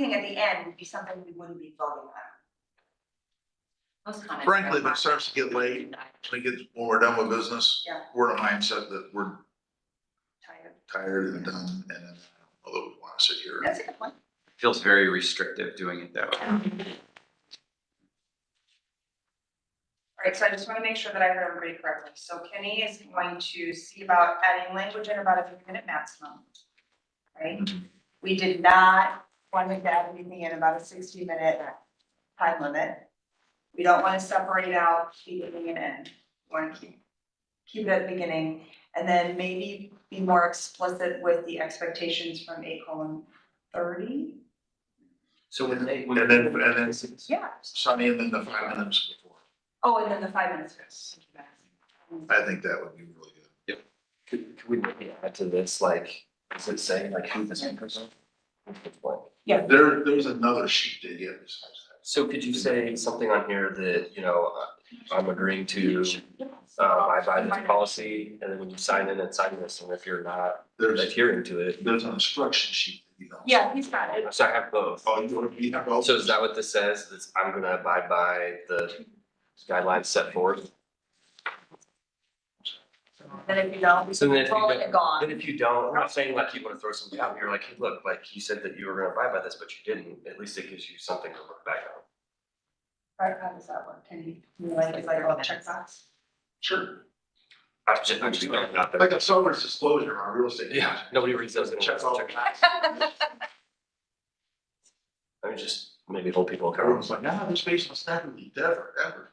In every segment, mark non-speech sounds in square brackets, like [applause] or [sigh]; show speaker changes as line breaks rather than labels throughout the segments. thing at the end would be something we wouldn't be voting on. Most comments. are
Frankly, if it starts to get late, when we get, when we're done with business,
Yeah.
we're in a mindset that we're
tired.
tired and done, and then, although we want to sit here.
That's a good point.
Feels very restrictive doing it that way.
All right, so I just want to make sure that I heard everybody correctly. So Kenny is going to see about adding language in about a three minute maximum. Right? We did not want to add anything in about a sixty minute time limit. We don't want to separate out beginning and end. We Want to keep, keep it at the beginning and then maybe be more explicit with the expectations from eight colon thirty?
So when they. when-
And then, and then
Yeah.
Sunny, and then the five minutes before,
Oh, and then the five minutes. yes.
I think that would be really good.
Could, could we maybe add to this, like, is it saying like who this person?
There, there's another sheet to get besides
So could you say something on here that, you know, uh, I'm agreeing to, uh, I buy this policy, and then when you sign in and sign this, and if you're not
that. There's,
adhering to it,
there's an instruction sheet that you don't.
Yeah, he's got it.
so I have both.
Oh, you want to be, well,
So is that what this says, that I'm gonna abide by the guidelines set forth?
Then if you don't,
So then if you
roll
don't-
it gone.
Then if you don't, I'm not saying like you wanna throw something out, you're like, hey, look, like you said that you were gonna abide by this, but you didn't, at least it gives you something to look back on.
Right, how does that work? Can you, you like, it's like a checkbox?
sure,
I just, I just put it out there.
like a seller's disclosure on real estate.
Yeah, nobody reads those. anyway.
Check all
[laughs]
the
Check-
boxes.
I mean, just maybe old people come.
Everyone's like, nah, this basement's not gonna be ever, ever.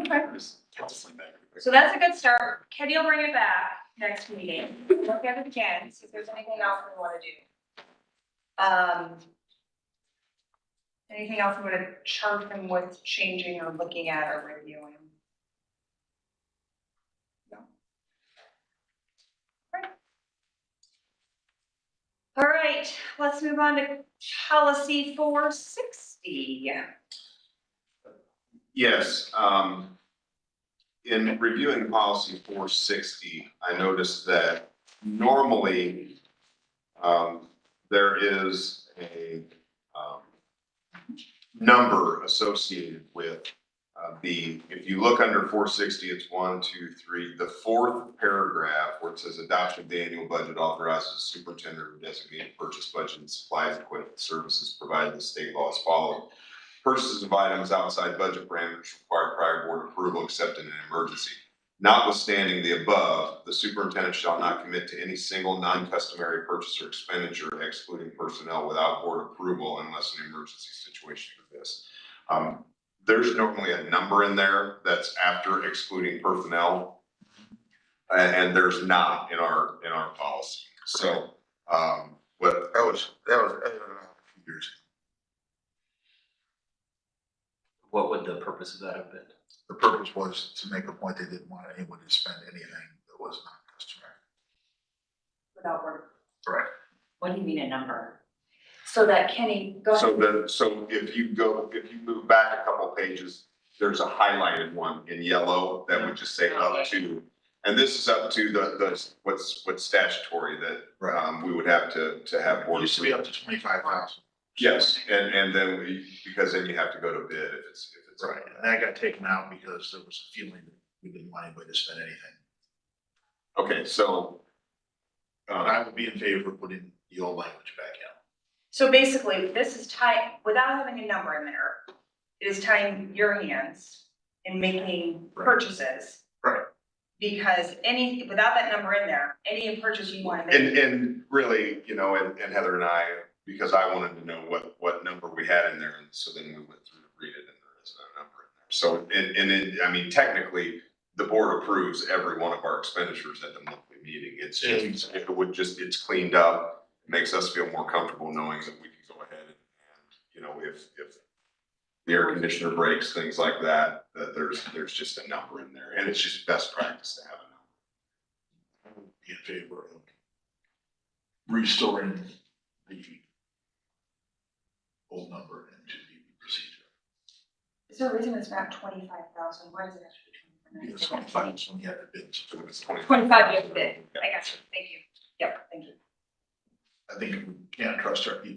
Okay,
Counseling back.
so that's a good start. Kenny will bring it back next meeting. Look at it again, see if there's anything else we wanna do. Um. Anything else we wanna charge them with changing or looking at or reviewing? No. Right. All right, let's move on to policy four sixty.
Yes, um, in reviewing policy four sixty, I noticed that normally, um, there is a, um, number associated with, uh, the, if you look under four sixty, it's one, two, three, the fourth paragraph where it says adoption of the annual budget authorizes the superintendent to designate purchase budget and supplies, equipment, services provided in the state law as follows. Purchases of items outside budget parameters require prior board approval except in an emergency. Notwithstanding the above, the superintendent shall not commit to any single non-customary purchase or expenditure excluding personnel without board approval unless an emergency situation exists. Um, there's normally a number in there that's after excluding personnel. a- And, there's not in our, in our policy. So, um, but
That was, that was, uh, a few years ago.
What would the purpose of that have been?
The purpose was to make a point, they didn't want anyone to spend anything that was not customary.
Without work.
Right.
What do you mean a number? So that Kenny, go
So
ahead.
the, so if you go, if you move back a couple pages, there's a highlighted one in yellow that would just say up to. And this is up to the, the, what's, what's statutory that, um, we would have to, to have.
It
board
used to be
approval.
up to twenty-five thousand.
Yes, and, and then we, because then you have to go to bid if it's, if it's.
Right, and that got taken out because there was a feeling that we didn't want anybody to spend anything.
Okay, so.
But
Uh,
I would be in favor of putting the old language back in.
So basically, this is tying, without having a number in there, it is tying your hands in making
Right.
purchases.
Right.
Because any, without that number in there, any purchase you want to
and,
make,
and really, you know, and, and Heather and I, because I wanted to know what, what number we had in there, and so then we went through to read it, and there is no number in there. So, and, and it, I mean, technically, the board approves every one of our expenditures at the monthly meeting, it's just, it would just, it's cleaned up, makes us feel more comfortable knowing that we can go ahead and, you know, if, if the air conditioner breaks, things like that, that there's, there's just a number in there, and it's just best practice to have a number.
I would Be in favor of restoring the old number into the procedure.
is there a reason it's not twenty-five thousand? Why does it have to be
Because
twenty-five?
twenty-five is when you had the bids.
If it's twenty.
Twenty-five, you have to bid. I got you, thank you. Yep, thank you.
I think we can't trust our people